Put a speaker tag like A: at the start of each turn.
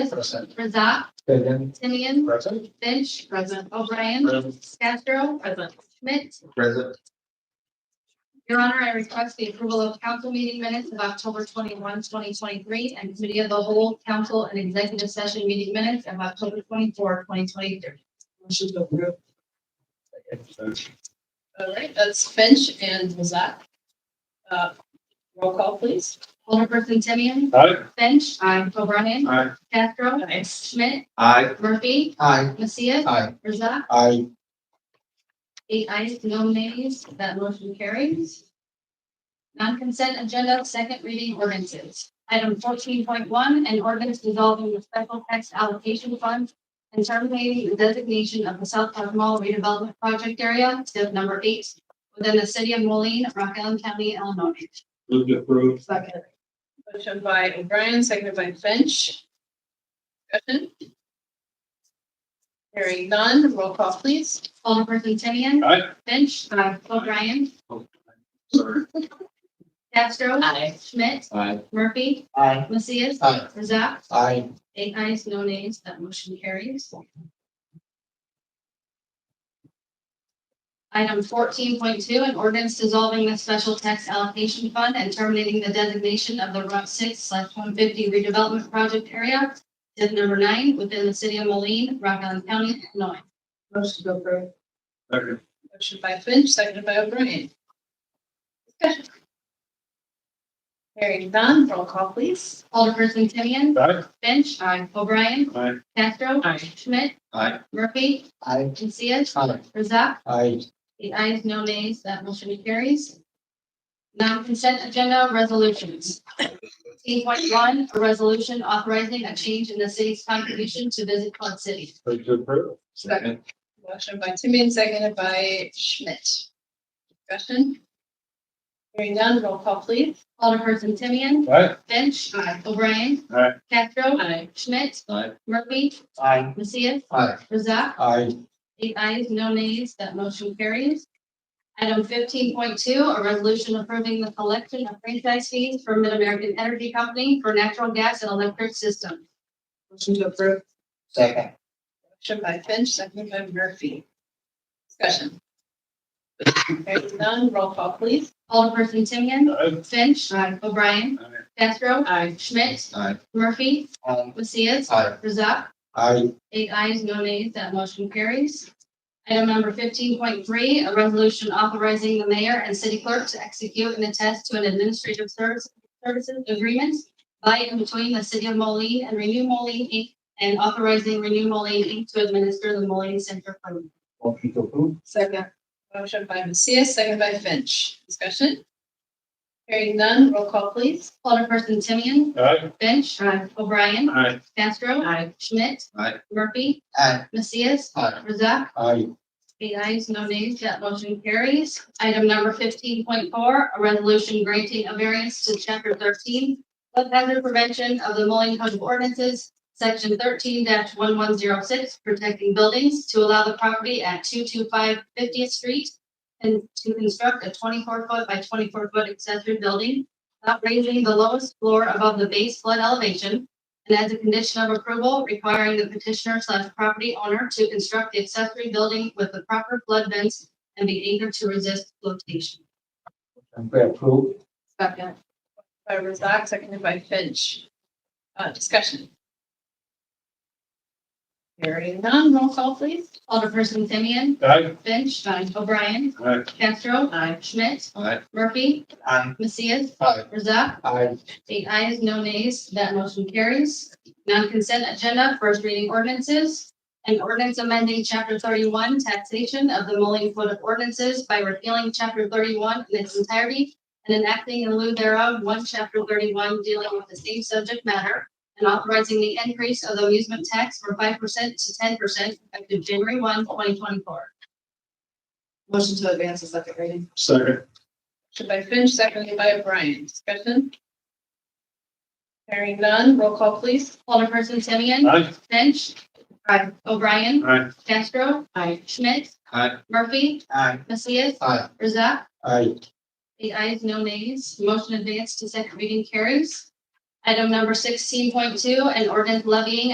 A: Present.
B: Razak,
A: Fagan.
B: Timian,
A: Present.
B: Finch,
C: Present.
B: O'Brien,
A: Present.
B: Castro,
C: Present.
B: Schmidt.
A: Present.
B: Your Honor, I request the approval of council meeting minutes of October 21, 2023, and committee of the whole council and executive session meeting minutes of October 24, 2023.
C: Motion to approve. All right, that's Finch and Mazat. Uh, Roll call, please.
B: Alderperson Timian,
A: Aye.
B: Finch, O'Brien,
A: Aye.
B: Castro,
C: Nice.
B: Schmidt,
A: Aye.
B: Murphy,
A: Aye.
B: Messias,
A: Aye.
B: Razak,
A: Aye.
B: eight ayes, no nays, that motion carries. Non-consent agenda, second reading ordinances. Item fourteen point one, an ordinance dissolving the special tax allocation fund and terminating the designation of the South Park Mall redevelopment project area, step number eight, within the city of Moline, Rock Island County, Illinois.
A: Move to approve.
C: Second. Motion by O'Brien, seconded by Finch. Discussion. Hearing none, roll call, please.
B: Alderperson Timian.
A: Aye.
B: Finch. O'Brien.
A: Sorry.
B: Castro.
C: Aye.
B: Schmidt.
A: Aye.
B: Murphy.
A: Aye.
B: Macias.
A: Aye.
B: Razak.
A: Aye.
B: Eight ayes, no nays, that motion carries. Item fourteen point two, an ordinance dissolving the special tax allocation fund and terminating the designation of the Route six slash one fifty redevelopment project area, tip number nine, within the city of Moline, Rock Island County, Illinois.
C: Motion to approve.
A: Second.
C: Motion by Finch, seconded by O'Brien. Discussion. Hearing none, roll call, please.
B: Alderperson Timian.
A: Aye.
B: Finch. O'Brien.
A: Aye.
B: Castro.
C: Aye.
B: Schmidt.
A: Aye.
B: Murphy.
A: Aye.
B: Macias.
A: Aye.
B: Razak.
A: Aye.
B: The ayes, no nays, that motion carries. Non-consent agenda resolutions. Eight point one, a resolution authorizing a change in the city's contribution to Visit Quad City.
A: Move to approve.
C: Second. Motion by Timian, seconded by Schmidt. Discussion. Hearing none, roll call, please.
B: Alderperson Timian,
A: Aye.
B: Finch. O'Brien.
A: Aye.
B: Castro.
C: Aye.
B: Schmidt.
A: Aye.
B: Murphy.
A: Aye.
B: Messias.
A: Aye.
B: Razak.
A: Aye.
B: Eight ayes, no nays, that motion carries. Item fifteen point two, a resolution approving the collection of franchise fees for Mid-American Energy Company for natural gas and electric systems.
C: Motion to approve.
A: Second.
C: Motion by Finch, seconded by Murphy. Discussion. Hearing none, roll call, please.
B: Alderperson Timian.
A: Aye.
B: Finch. O'Brien.
A: Aye.
B: Castro.
C: Aye.
B: Schmidt.
A: Aye.
B: Murphy.
A: Aye.
B: Messias.
A: Aye.
B: Razak.
A: Aye.
B: Eight ayes, no nays, that motion carries. Item number fifteen point three, a resolution authorizing the mayor and city clerk to execute and attest to an administrative service, services agreement by and between the city of Moline and Renew Moline Inc. and authorizing Renew Moline Inc. to administer the Moline Center Fund.
A: Motion to approve.
C: Second. Motion by Messias, seconded by Finch. Discussion. Hearing none, roll call, please.
B: Alderperson Timian.
A: Aye.
B: Finch. O'Brien.
A: Aye.
B: Castro.
C: Aye.
B: Schmidt.
A: Aye.
B: Murphy.
A: Aye.
B: Macias.
A: Aye.
B: Razak.
A: Aye.
B: Eight ayes, no nays, that motion carries. Item number fifteen point four, a resolution granting a variance to chapter thirteen, flood hazard prevention of the Moline Code of Ordinances, section thirteen one one zero six, protecting buildings to allow the property at 225 50th street and to construct a twenty-four foot by twenty-four foot accessory building, not raising the lowest floor above the base flood elevation, and as a condition of approval, requiring the petitioner slash property owner to construct the accessory building with the proper flood vents and be anchored to resist flotation.
A: Move to approve.
C: Second. By Razak, seconded by Finch. Uh, discussion. Hearing none, roll call, please.
B: Alderperson Timian,
A: Aye.
B: Finch, O'Brien,
A: Aye.
B: Castro,
C: Aye.
B: Schmidt,
A: Aye.
B: Murphy,
A: Aye.
B: Macias,
A: Aye.
B: Razak,
A: Aye.
B: Eight ayes, no nays, that motion carries. Non-consent agenda, first reading ordinances. An ordinance amending chapter thirty-one taxation of the Moline Code of Ordinances by repealing chapter thirty-one in its entirety and enacting in lieu thereof one chapter thirty-one dealing with the same subject matter and authorizing the increase of the amusement tax from five percent to ten percent effective January 1, 2024.
C: Motion to advance the second reading.
A: Second.
C: Motion by Finch, seconded by O'Brien. Discussion. Hearing none, roll call, please.
B: Alderperson Timian,
A: Aye.
B: Finch.
C: Aye.
B: O'Brien,
A: Aye.
B: Castro,
C: Aye.
B: Schmidt,
A: Aye.
B: Murphy,
A: Aye.
B: Macias,
A: Aye.
B: Razak,
A: Aye.
B: Eight ayes, no nays. Motion advanced to second reading carries. Item number sixteen point two, an ordinance levying